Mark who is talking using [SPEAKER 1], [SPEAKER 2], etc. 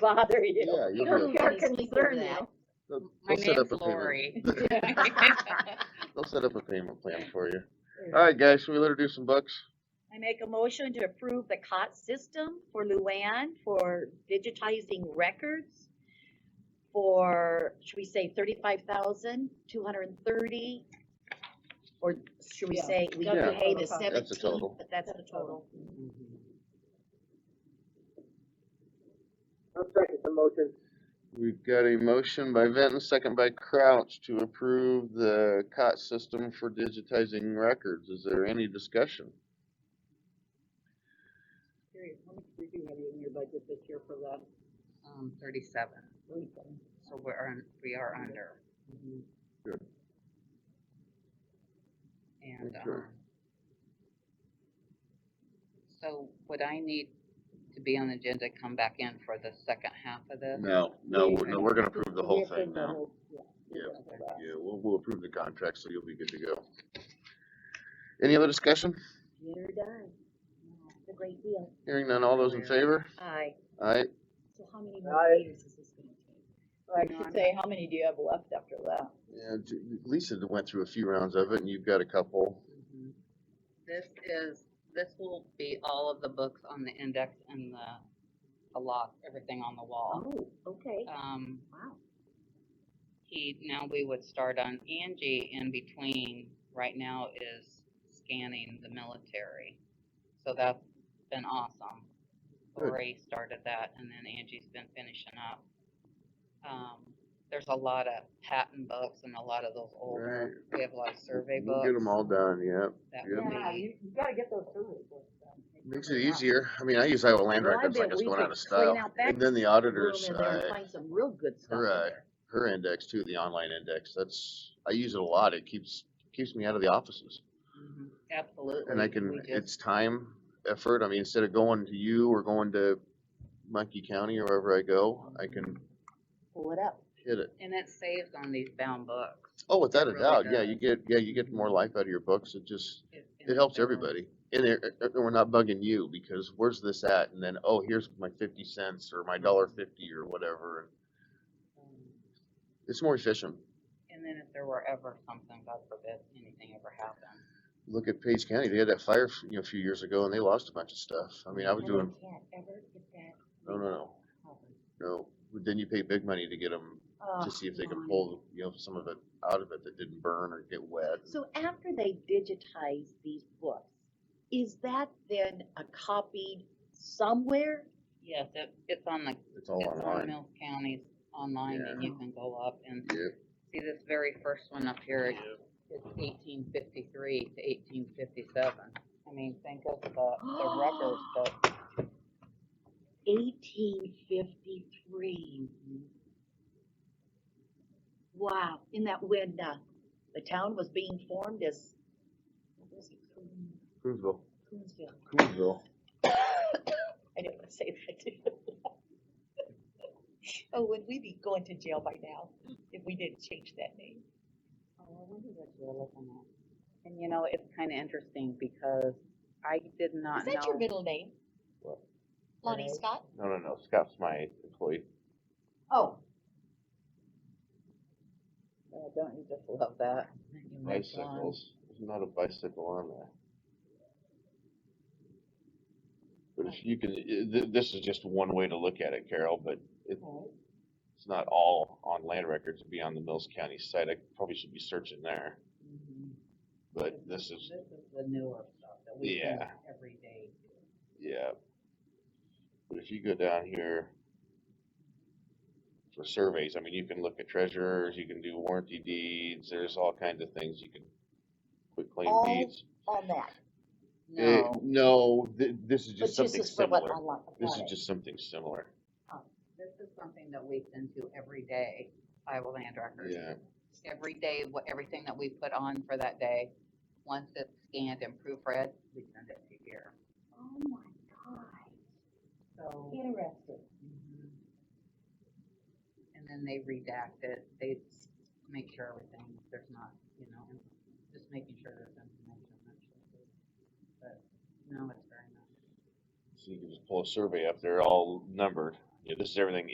[SPEAKER 1] bother you.
[SPEAKER 2] Yeah, you
[SPEAKER 1] don't
[SPEAKER 2] do.
[SPEAKER 1] care,
[SPEAKER 3] Nobody speaks of
[SPEAKER 1] concern
[SPEAKER 3] that.
[SPEAKER 2] They'll-
[SPEAKER 4] My
[SPEAKER 2] they'll set
[SPEAKER 4] name's
[SPEAKER 2] up a payment-
[SPEAKER 4] Lori.
[SPEAKER 2] They'll set up a payment plan for you. Alright, guys, should we let her do some bucks?
[SPEAKER 1] I make a motion to approve the COT system for Luann for digitizing records for, should we say thirty-five thousand, two hundred and thirty? Or should we
[SPEAKER 3] Yeah.
[SPEAKER 1] say we
[SPEAKER 2] Yeah.
[SPEAKER 1] can pay the
[SPEAKER 2] That's the
[SPEAKER 1] seventeen,
[SPEAKER 2] total.
[SPEAKER 1] but that's the total?
[SPEAKER 5] I'll second the motion.
[SPEAKER 2] We've got a motion by Benton, second by Crouch to approve the COT system for digitizing records. Is there any discussion?
[SPEAKER 5] Curious, how much did you have in your budget this year for that?
[SPEAKER 4] Um, thirty-seven, so we're, un- we are under.
[SPEAKER 2] Mm-hmm. Good.
[SPEAKER 4] And,
[SPEAKER 2] Okay.
[SPEAKER 4] um, so would I need to be on the agenda, come back in for the second half of this?
[SPEAKER 2] No, no, we're- no, we're gonna approve the whole
[SPEAKER 5] Yeah,
[SPEAKER 2] thing now.
[SPEAKER 5] Yeah.
[SPEAKER 2] Yeah, we'll, we'll approve the contract, so you'll be good to go. Any other discussion?
[SPEAKER 1] You're done. It's a great deal.
[SPEAKER 2] Hearing none, all those in favor?
[SPEAKER 1] Aye.
[SPEAKER 2] Aye,
[SPEAKER 1] So how many
[SPEAKER 5] more Aye.
[SPEAKER 1] years is this gonna take?
[SPEAKER 3] I should say, how many do you have left after that?
[SPEAKER 2] yeah, J- Lisa went through a few rounds of it, and you've got a couple.
[SPEAKER 4] Mhm. This is, this will be all of the books on the index and the, the lock, everything on the wall.
[SPEAKER 1] Oh, okay,
[SPEAKER 4] Um,
[SPEAKER 1] wow.
[SPEAKER 4] he, now we would start on Angie in between, right now is scanning the military. So that's been awesome.
[SPEAKER 2] Good.
[SPEAKER 4] Ray started that and then Angie's been finishing up. Um, there's a lot of patent books and a lot of those older, we have a lot of survey
[SPEAKER 2] We'll
[SPEAKER 4] books.
[SPEAKER 2] get them all done, yep.
[SPEAKER 4] that
[SPEAKER 2] yeah.
[SPEAKER 4] we-
[SPEAKER 5] you gotta get those survey books done.
[SPEAKER 2] Makes it easier. I mean, I use Iowa land
[SPEAKER 1] Well, I
[SPEAKER 2] records like
[SPEAKER 1] bet
[SPEAKER 2] it's
[SPEAKER 1] we
[SPEAKER 2] going out
[SPEAKER 1] could
[SPEAKER 2] of
[SPEAKER 1] clean
[SPEAKER 2] style.
[SPEAKER 1] out
[SPEAKER 2] And
[SPEAKER 1] that
[SPEAKER 2] then the auditors,
[SPEAKER 1] Room in there and
[SPEAKER 2] uh,
[SPEAKER 1] Find some real good stuff in
[SPEAKER 2] right.
[SPEAKER 1] there.
[SPEAKER 2] her index too, the online index, that's, I use it a lot. It keeps, keeps me out of the offices.
[SPEAKER 4] Mhm, Absolutely.
[SPEAKER 2] And I
[SPEAKER 4] we
[SPEAKER 2] can,
[SPEAKER 4] just-
[SPEAKER 2] it's time, effort. I mean, instead of going to you or going to Monkey County or wherever I go, I can
[SPEAKER 1] Pull it up.
[SPEAKER 2] hit it.
[SPEAKER 4] And it saves on these bound books.
[SPEAKER 2] Oh, without a
[SPEAKER 4] really
[SPEAKER 2] doubt, yeah,
[SPEAKER 4] does.
[SPEAKER 2] you get, yeah, you get more life out of your books, it just, it
[SPEAKER 4] and
[SPEAKER 2] helps
[SPEAKER 4] they're-
[SPEAKER 2] everybody. And they're, uh, uh, we're not bugging you, because where's this at, and then, oh, here's my fifty cents, or my
[SPEAKER 1] Mm-hmm.
[SPEAKER 2] dollar fifty, or whatever, and
[SPEAKER 4] um,
[SPEAKER 2] it's more efficient.
[SPEAKER 4] And then if there were ever something, God forbid, anything ever happened.
[SPEAKER 2] Look at Page County, they had that fire, f- you know, a few years ago, and they lost a bunch of stuff, I mean, I was
[SPEAKER 1] And we
[SPEAKER 2] doing,
[SPEAKER 1] Can't ever get that.
[SPEAKER 2] no, no, no,
[SPEAKER 1] covered.
[SPEAKER 2] no, But then you pay big money to get them,
[SPEAKER 1] Oh,
[SPEAKER 2] to see if they can
[SPEAKER 1] my.
[SPEAKER 2] pull, you know, some of it out of it that didn't burn or get wet.
[SPEAKER 1] So after they digitize these books, is that then a copied somewhere?
[SPEAKER 4] Yes, it, it's on the,
[SPEAKER 2] It's
[SPEAKER 1] Oh,
[SPEAKER 2] all
[SPEAKER 4] it's on
[SPEAKER 2] online,
[SPEAKER 4] Mills County's online and you can go up and
[SPEAKER 2] yeah,
[SPEAKER 4] see this very first one up here. It's eighteen fifty-three to eighteen fifty-seven. I mean, think of the, the records, but oh,
[SPEAKER 1] Eighteen fifty-three. Wow, in that when, uh, the town was being formed as, what was it, Coon-
[SPEAKER 2] Coonsville,
[SPEAKER 1] Coonsville?
[SPEAKER 2] Coonsville.
[SPEAKER 1] I didn't want to say that. did I? Oh, would we be going to jail by now if we didn't change that name?
[SPEAKER 4] Oh, I wonder what you're looking at. And you know, it's kinda interesting because I did
[SPEAKER 1] Is
[SPEAKER 4] not know.
[SPEAKER 1] that your middle name?
[SPEAKER 2] What?
[SPEAKER 1] Lonnie Scott?
[SPEAKER 2] No, no, no, Scott's my employee.
[SPEAKER 1] Oh,
[SPEAKER 4] Oh, Don't you just love that?
[SPEAKER 2] Bicycles, there's not a bicycle on there. But if you can, i- th- this is just one way to look at it, Carol, but it, it's not all on land records, it'd be on the Mills County site, I probably should be searching there.
[SPEAKER 4] Mhm.
[SPEAKER 2] But this is,
[SPEAKER 4] This is the newer stuff that we do
[SPEAKER 2] Yeah.
[SPEAKER 4] every day.
[SPEAKER 2] yeah. But if you go down here for surveys, I mean, you can look at treasurers, you can do warranty deeds, there's all kinds of things you can, quick claim
[SPEAKER 1] All
[SPEAKER 2] deeds.
[SPEAKER 1] on that,
[SPEAKER 2] Eh,
[SPEAKER 4] No,
[SPEAKER 2] No, th- this is
[SPEAKER 1] but
[SPEAKER 2] just
[SPEAKER 1] this
[SPEAKER 2] something
[SPEAKER 1] is for what,
[SPEAKER 2] similar.
[SPEAKER 1] online,
[SPEAKER 2] This
[SPEAKER 1] got
[SPEAKER 2] is
[SPEAKER 1] it.
[SPEAKER 2] just something similar.
[SPEAKER 4] this is something that we send to every day, Iowa Land Records.
[SPEAKER 2] Yeah,
[SPEAKER 4] Every day, what, everything that we put on for that day, once it's scanned and proofread, we send it to here.
[SPEAKER 1] Oh my
[SPEAKER 4] So, mm-hmm.
[SPEAKER 1] God, interesting.
[SPEAKER 4] mhm. and then they redact it, they s- make sure everything, there's not, you know, and just making sure there's information. that's what it is. But, no, it's very nice.
[SPEAKER 2] so you can just pull a survey up, they're all numbered. Yeah, this is everything